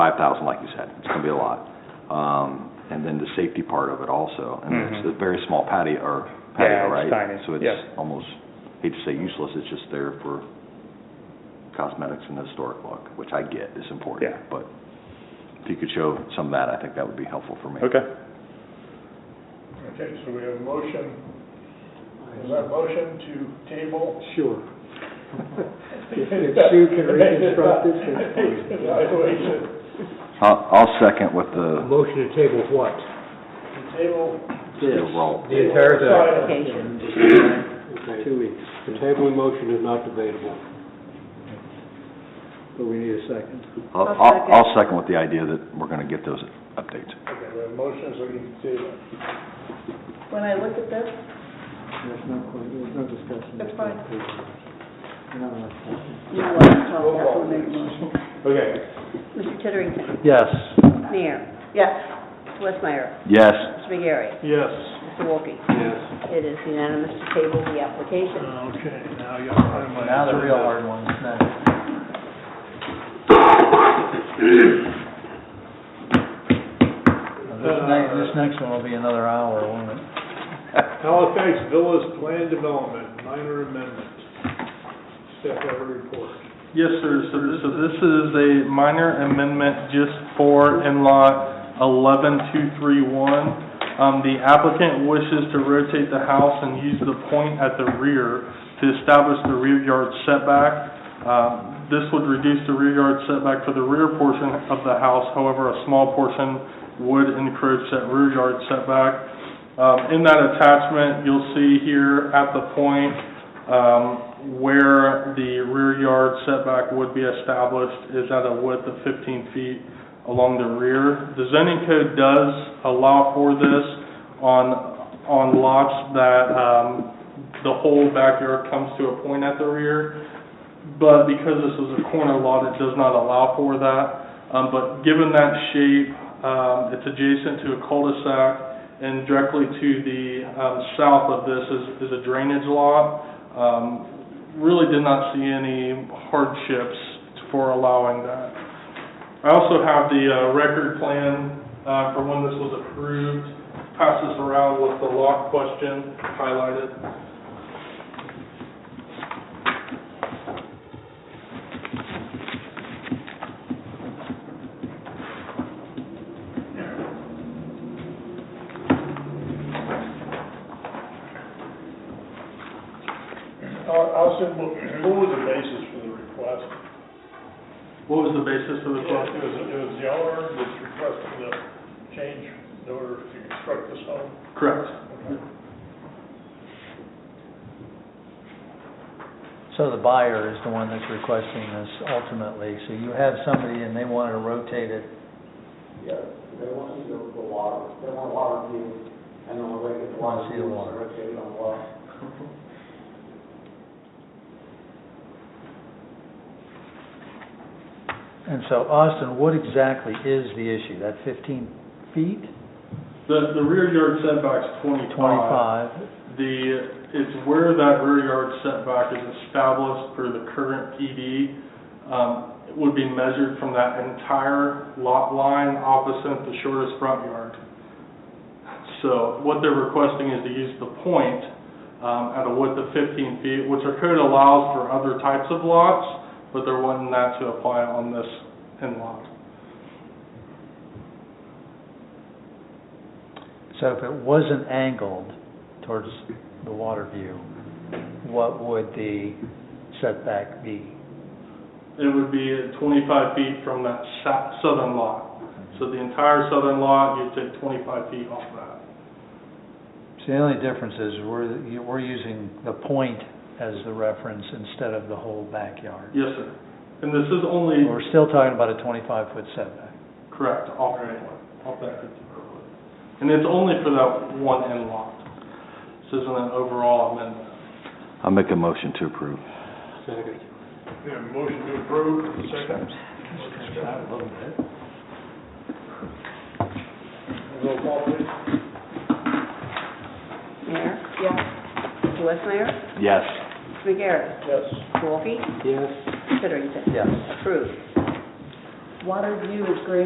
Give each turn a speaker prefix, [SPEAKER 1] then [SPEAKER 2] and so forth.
[SPEAKER 1] five thousand, like you said, it's gonna be a lot. Um, and then the safety part of it also, and it's
[SPEAKER 2] Mhm.
[SPEAKER 1] a very small patio, or
[SPEAKER 2] Yeah,
[SPEAKER 1] patio,
[SPEAKER 2] it's
[SPEAKER 1] right?
[SPEAKER 2] tiny,
[SPEAKER 1] So
[SPEAKER 2] yeah.
[SPEAKER 1] it's almost, hate to say useless, it's just there for cosmetics and historic look, which I get is important.
[SPEAKER 2] Yeah.
[SPEAKER 1] But if you could show some of that, I think that would be helpful for me.
[SPEAKER 2] Okay.
[SPEAKER 3] Okay, so we have a motion, is that motion to table?
[SPEAKER 4] Sure. If if Sue can reconstruct this, it's fine.
[SPEAKER 3] Evaluation,
[SPEAKER 1] I'll, I'll second with the,
[SPEAKER 4] Motion to table what?
[SPEAKER 3] to table.
[SPEAKER 1] the roll.
[SPEAKER 4] The entire thing.
[SPEAKER 3] Sign it.
[SPEAKER 4] Two weeks. The tabling motion is not debatable. But we need a second.
[SPEAKER 1] I'll, I'll, I'll second with the idea that we're gonna get those updates.
[SPEAKER 3] Okay, we have a motion, so we can table.
[SPEAKER 5] When I look at this,
[SPEAKER 4] That's not quite, there's no discussion.
[SPEAKER 5] That's fine.
[SPEAKER 4] No, that's fine.
[SPEAKER 5] you want to talk, that's what made the motion.
[SPEAKER 3] Okay.
[SPEAKER 6] Mr. Titterington.
[SPEAKER 4] Yes.
[SPEAKER 6] Mayor.
[SPEAKER 5] Yes.
[SPEAKER 6] Westmeyer.
[SPEAKER 1] Yes,
[SPEAKER 6] Mr. McGarry.
[SPEAKER 3] Yes.
[SPEAKER 6] Mr. Wolke.
[SPEAKER 4] Yes.
[SPEAKER 6] It is unanimous to table the application.
[SPEAKER 3] Oh, Okay, now you have my.
[SPEAKER 7] Now the real hard ones, now. This
[SPEAKER 3] Uh,
[SPEAKER 7] next, this next one will be another hour, won't it?
[SPEAKER 3] Halifax Villas Plan Development, minor amendment. Step over report.
[SPEAKER 8] Yes, sir. So this, so this is a minor amendment just for in-law eleven-two-three-one. Um, the applicant wishes to rotate the house and use the point at the rear to establish the rear yard setback. Um, this would reduce the rear yard setback for the rear portion of the house, however, a small portion would encroach that rear yard setback. Um, in that attachment, you'll see here at the point, um, where the rear yard setback would be established is at a width of 15 feet along the rear. The zoning code does allow for this on, on lots that um, the whole backyard comes to a point at the rear, but because this is a corner lot, it does not allow for that. Um, But given that shape, um, it's adjacent to a cul-de-sac, and directly to the um, south of this is is a drainage lot. Um, Really did not see any hardships for allowing that. I also have the uh, record plan uh, for when this was approved, pass this around with the lot question highlighted.
[SPEAKER 3] Al- Allison, what what was the basis for the request?
[SPEAKER 8] What was the basis for the
[SPEAKER 3] It
[SPEAKER 8] question?
[SPEAKER 3] was, it was the owner that's requesting the change in order to construct this home?
[SPEAKER 8] Correct.
[SPEAKER 7] So the buyer is the one that's requesting this ultimately, so you have somebody and they wanted to rotate it.
[SPEAKER 9] Yeah, they want to see the, the water, they want water view, and on the way to the water
[SPEAKER 7] See the
[SPEAKER 9] view, it's
[SPEAKER 7] water.
[SPEAKER 9] located on the water.
[SPEAKER 7] And so Austin, what exactly is the issue? That fifteen feet?
[SPEAKER 8] The, the rear yard setback's
[SPEAKER 9] Uh,
[SPEAKER 8] 25.
[SPEAKER 7] Twenty-five?
[SPEAKER 8] The, it's where that rear yard setback is established for the current PD, um, it would be measured from that entire lot line opposite the shortest front yard. So what they're requesting is to use the point, um, at a width of fifteen feet, which our code allows for other types of lots, but they're wanting that to apply on this in-lot.
[SPEAKER 7] So if it wasn't angled towards the water view, what would the setback be?
[SPEAKER 8] It would be at 25 feet from that sou- southern lot. So the entire southern lot, you'd take 25 feet off that.
[SPEAKER 7] So the only difference is we're, you- we're using the point as the reference instead of the whole backyard.
[SPEAKER 8] Yes, sir. And this is only,
[SPEAKER 7] We're still talking about a twenty-five foot setback.
[SPEAKER 8] correct, off that one, off that 50 foot. And it's only for that one end lot. This isn't an overall amendment.
[SPEAKER 1] I'll make a motion to approve.
[SPEAKER 4] Second.
[SPEAKER 3] We have a motion to approve, second. Roll call, please.
[SPEAKER 6] Mayor.
[SPEAKER 5] Yes.
[SPEAKER 6] Mr. Westmeyer.
[SPEAKER 1] Yes.
[SPEAKER 6] Mr. McGarry.
[SPEAKER 3] Yes.
[SPEAKER 6] Mr. Wolke.
[SPEAKER 4] Yes.
[SPEAKER 6] Mr. Titterington.
[SPEAKER 7] Yes.
[SPEAKER 6] Approved. Water view is great